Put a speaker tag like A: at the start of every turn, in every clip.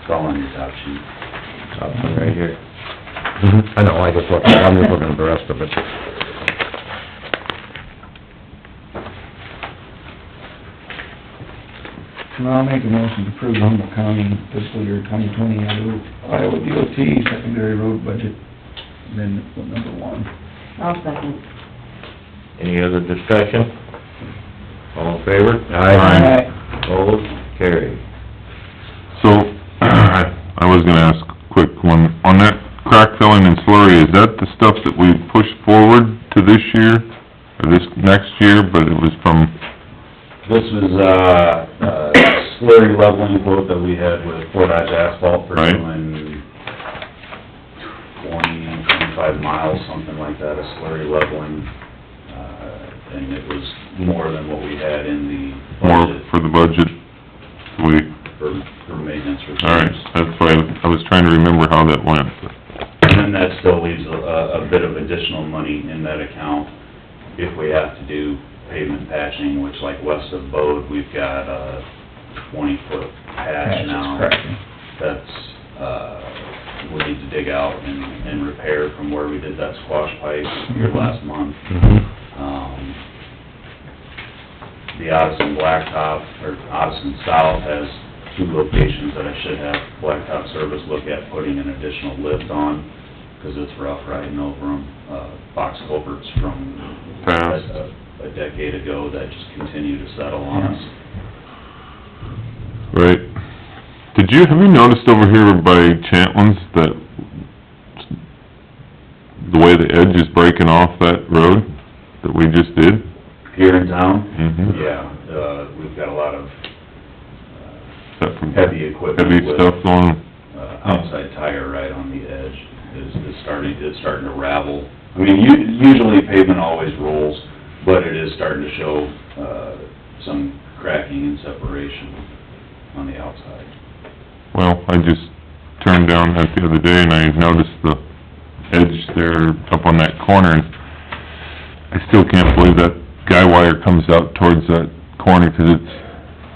A: It's all on your top sheet.
B: Top one right here. I know, I just looked, I'm just looking at the rest of it.
C: Well, I'll make a motion to approve Humboldt County fiscal year twenty twenty Iowa DOT secondary road budget amendment number one.
D: I'll second.
B: Any other discussion? All in favor?
A: Aye.
B: Opposed? Carried.
E: So, I was gonna ask quick one, on that crack filling and slurry, is that the stuff that we pushed forward to this year? Or this next year, but it was from,
A: This was, uh, uh, slurry leveling quote that we had with Fort Dodge Asphalt for
E: Right.
A: doing twenty, twenty-five miles, something like that, a slurry leveling. Uh, and it was more than what we had in the
E: more
A: budget
E: for the budget? We,
A: for, for maintenance
E: alright,
A: reserves.
E: that's why, I was trying to remember how that went.
A: And then that still leaves a, a a bit of additional money in that account if we have to do pavement patching, which like west of Bode, we've got a twenty-foot patch now. That's, uh, we need to dig out and, and repair from where we did that squash pipe here last month. Um, The Odison Blacktop, or Odison South has two locations that I should have Blacktop Service look at putting an additional lift on, because it's rough riding over them. Box culverts from
E: Past.
A: a a decade ago that just continue to settle on us.
E: Right. Did you, have you noticed over here by Chantlin's that the way the edge is breaking off that road that we just did?
A: Here in town,
E: Mm-hmm.
A: Mm-hmm. yeah, uh, we've got a lot of uh,
E: Except for
A: heavy equipment
E: heavy
A: with,
E: stuff on,
A: uh, outside tire right on the edge is, is starting, is starting to ravel. I mean, u- usually pavement always rolls, but it is starting to show, uh, some cracking and separation on the outside.
E: well, I just turned down that the other day and I noticed the edge there up on that corner. and I still can't believe that guy wire comes out towards that corner 'cause it's,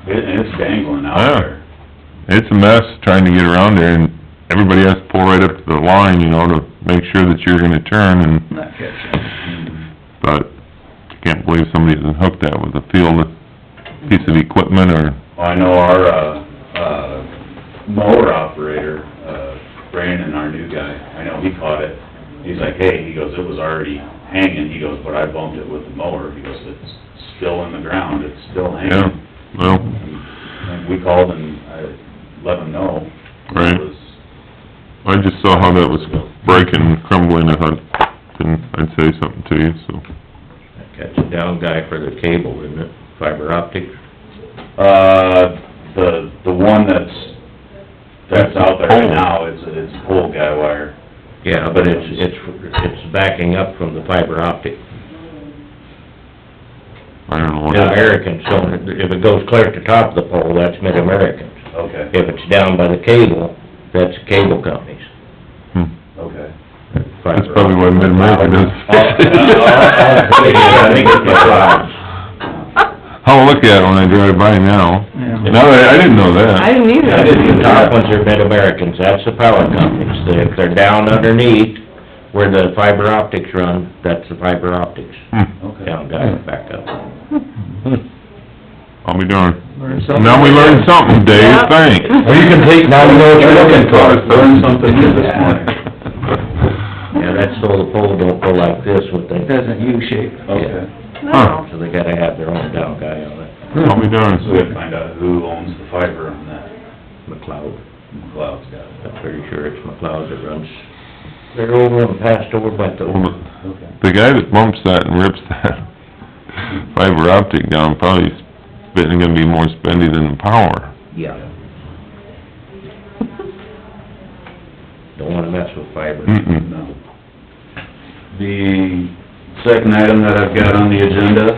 A: It, and it's dangling
E: Yeah.
A: out there.
E: it's a mess trying to get around there and everybody has to pull right up to the line, you know, to make sure that you're gonna turn and,
C: Not catching.
A: Mm-hmm.
E: but I can't believe somebody hasn't hooked that with a field, piece of equipment or,
A: Well, I know our, uh, uh, mower operator, uh, Brandon, our new guy, I know he caught it. He's like, hey, he goes, it was already hanging, he goes, but I bumped it with the mower, he goes, it's still in the ground, it's still
E: yeah,
A: hanging.
E: well.
A: And we called and I let them know.
E: Right.
A: It was-
E: I just saw how that was breaking, crumbling, I thought, then I'd say something to you, so.
B: Catch a down guy for the cable, isn't it? Fiber optic?
A: Uh, the, the one that's, that's out there right now, it's, it's pole guy wire.
B: Yeah, but it's, it's, it's backing up from the fiber optic.
E: I don't know what,
B: Mid-American, so if it goes clear at the top of the pole, that's Mid-American.
A: Okay,
B: If it's down by the cable, that's cable companies.
E: hmm,
A: okay.
E: that's probably why Mid-America does. I'll look at it when I drive by now.
C: Yeah.
E: No, I, I didn't know that.
D: didn't
B: Yeah, The top ones are Mid-Americans, that's the power companies. They- If they're down underneath where the fiber optics run, that's the fiber optics.
E: Hmm,
A: Okay.
B: Down guy, back up.
E: I'll be darned.
C: Learn something.
E: Now we learned something, Dave,
D: Yeah.
E: thanks.
D: Well,
E: you can take, now we know what you're looking for.
A: Learned something new this morning.
B: Yeah, that's so the pole don't go like this with
C: It
B: the,
C: doesn't U shape.
A: Okay,
D: No.
B: so they gotta have their own down guy on it,
E: I'll be
A: so we have to
E: darned.
A: find out who owns the fiber on that.
B: McLeod.
A: McLeod's got it.
B: I'm pretty sure it's McLeod that runs. They're over and passed over by the,
A: Okay.
E: The guy that bumps that and rips that fiber optic down probably is spending, gonna be more spendy than the power.
B: yeah. Don't wanna mess with fiber.
E: Mm-mm.
A: No. The second item that I've got on the agenda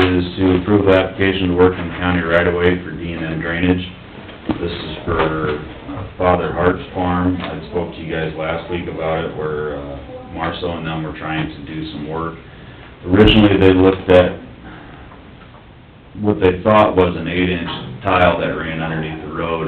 A: is to approve application to work in county right away for D and M drainage. This is for uh, Father Hart's farm. I spoke to you guys last week about it, where uh, Marcel and them were trying to do some work. Originally, they looked at what they thought was an eight-inch tile that ran underneath the road,